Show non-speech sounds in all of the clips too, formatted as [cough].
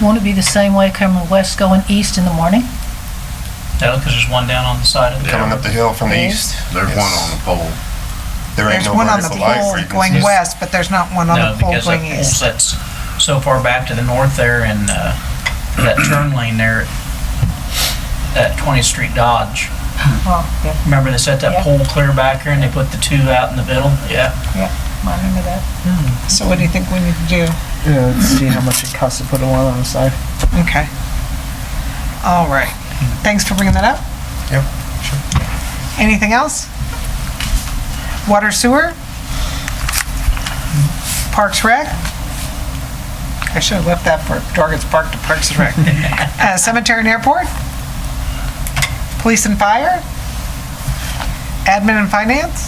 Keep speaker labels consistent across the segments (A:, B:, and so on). A: Won't it be the same way coming west, going east in the morning?
B: No, because there's one down on the side of the
C: Coming up the hill from the
A: Yeah.
C: east,
D: There's
C: Yes.
D: one on the pole.
C: there ain't no
E: There's one on the
C: vertical light
E: pole going
C: frequencies.
E: west, but there's not one on
B: No,
E: the pole
B: because that
E: going
B: pole
E: east.
B: sets so far back to the north there and, uh, that turn lane there at 20th Street Dodge.
A: Oh, yeah,
B: Remember they set
A: Yeah.
B: that pole clear back there and they put the two out in the middle? Yeah.
A: I remember that.
B: Hmm.
E: So what do you think we need to do?
F: Yeah, let's see how much it costs to put a one on the side.
E: Okay. All right. Thanks for bringing that up.
C: Yep,
E: Anything else? Water sewer? Parks Rec? I should have left that for Dorgan's Park to Parks and Rec. Uh, Cemetery and Airport? Police and Fire? Admin and Finance?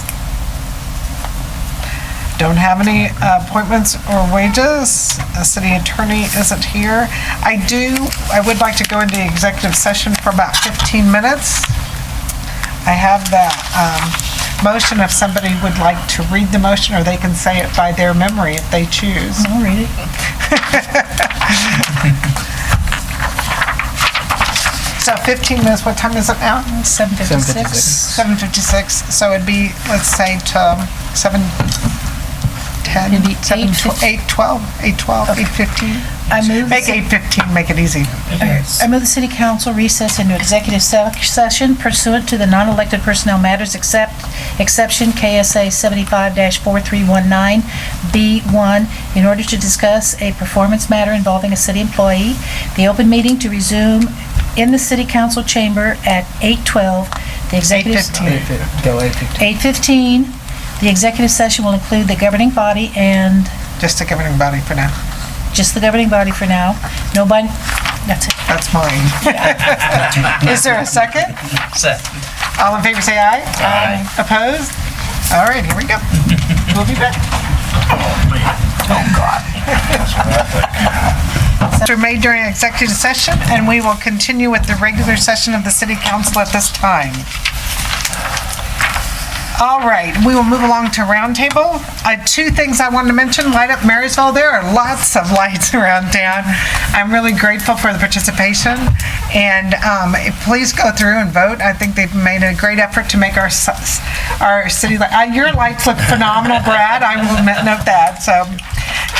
E: Don't have any uh, appointments or wages. A city attorney isn't here. I do, I would like to go into executive session for about 15 minutes. I have the um, motion, if somebody would like to read the motion, or they can say it by their memory if they choose.
A: I'll read it.
E: So 15 minutes, what time is it now?
A: 7:56.
E: 7:56, so it'd be, let's say, um, to 7:10,
A: It'd be
E: 7,
A: eight fif-
E: 8:12, 8:12, 8:15?
A: I move,
E: Make 8:15, make it easy.
A: I move the city council recess into executive se- session pursuant to the non-elected personnel matters except, exception KSA 75-4319B1 in order to discuss a performance matter involving a city employee. The open meeting to resume in the city council chamber at 8:12. The executive.
E: 8:15.
F: If it go eight fifteen.
A: 8:15. The executive session will include the governing body and
E: Just to give everybody for now.
A: just the governing body for now. Nobody, that's it.
E: That's
A: [laughs]
E: mine. Is there a second?
B: So-
E: All in favor, say aye. Aye. Opposed? All right, here we [laughs] go. We'll be back. Oh, [laughs] God. Are made during executive session, and we will continue with the regular session of the city council at this time. All right, we will move along to roundtable. Uh, Two things I wanted to mention, light up Marysville, there are lots of [laughs] lights around town. I'm really grateful for the participation, and um, eh, please go through and vote. I think they've made a great effort to make our, s- our city, li- uh, your lights look phenomenal, Brad, I will note that, so.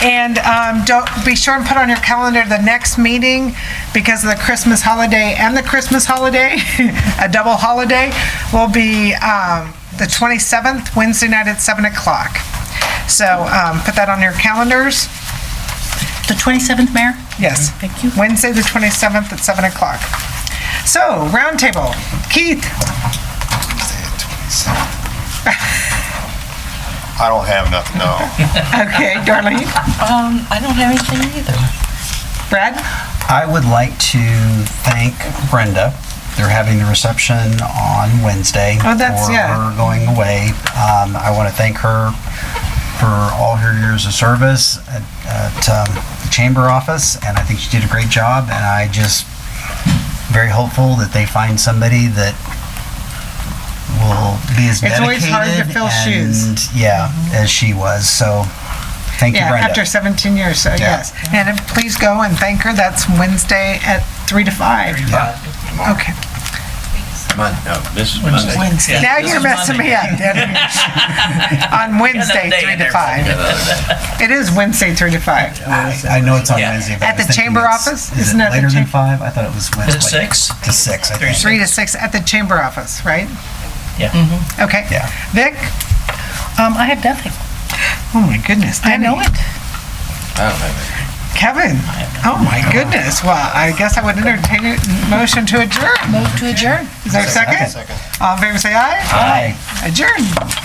E: And um, don't, be sure and put on your calendar the next meeting, because of the Christmas holiday and the Christmas holiday, [laughs] a double holiday, will be um, the 27th, Wednesday night at 7 o'clock. So um, put that on your calendars.
A: The 27th, Mayor?
E: Yes.
A: Thank you.
E: Wednesday, the 27th at 7 o'clock. So, roundtable. Keith, [laughs]
C: I don't have nothing, no.
E: okay, Darlene,
G: Um, I don't have anything either.
E: Brad,
H: I would like to thank Brenda. They're having the reception on Wednesday.
E: Oh, that's-
H: for
E: yeah.
H: her going away. Um, I want to thank her for all her years of service at, at um, the chamber office, and I think she did a great job. And I just very hopeful that they find somebody that will be as
E: It's
H: dedicated
E: always hard to fill shoes. Mm-hmm.
H: and yeah, as she was. So thank
E: yeah,
H: you, Brenda.
E: after 17 years, so
H: Yeah.
E: yes. And please go and thank her. That's Wednesday at 3 to 5. Okay.
D: [laughs] Mon- no, this is
B: Wednesday.
D: Monday.
B: Yeah,
E: Now
B: this
E: you're
B: is
E: messing
B: Monday.
E: me up, Denny.
B: [laughs]
E: On Wednesday,
B: day
E: 3
B: in
E: to
B: there.
E: 5. It is Wednesday, 3 to 5.
H: Uh, I I know it's on
B: Yeah.
H: Wednesday. but I
E: At the
H: was thinking
E: chamber
H: it's-
E: office?
H: Is
E: Isn't
H: it
E: that the
H: later than
E: cha-
H: five? I thought it was
B: Is
H: Wednesday.
B: it six?
H: To six, I think.
E: 3 to 6 at the chamber office, right?
B: Yeah.
E: Okay.
H: Mm-hmm. Yeah.
E: Vic?
A: Um, I have nothing.
E: Oh, my goodness.
A: I know
E: Denny.
A: it.
D: I don't have it.
E: Kevin? Oh, my goodness. Well, I guess I would entertain a motion to adjourn.
A: Move to adjourn.
E: Is there a second?
C: Second.
E: All in favor, say aye.
H: Aye.
E: Adjourn.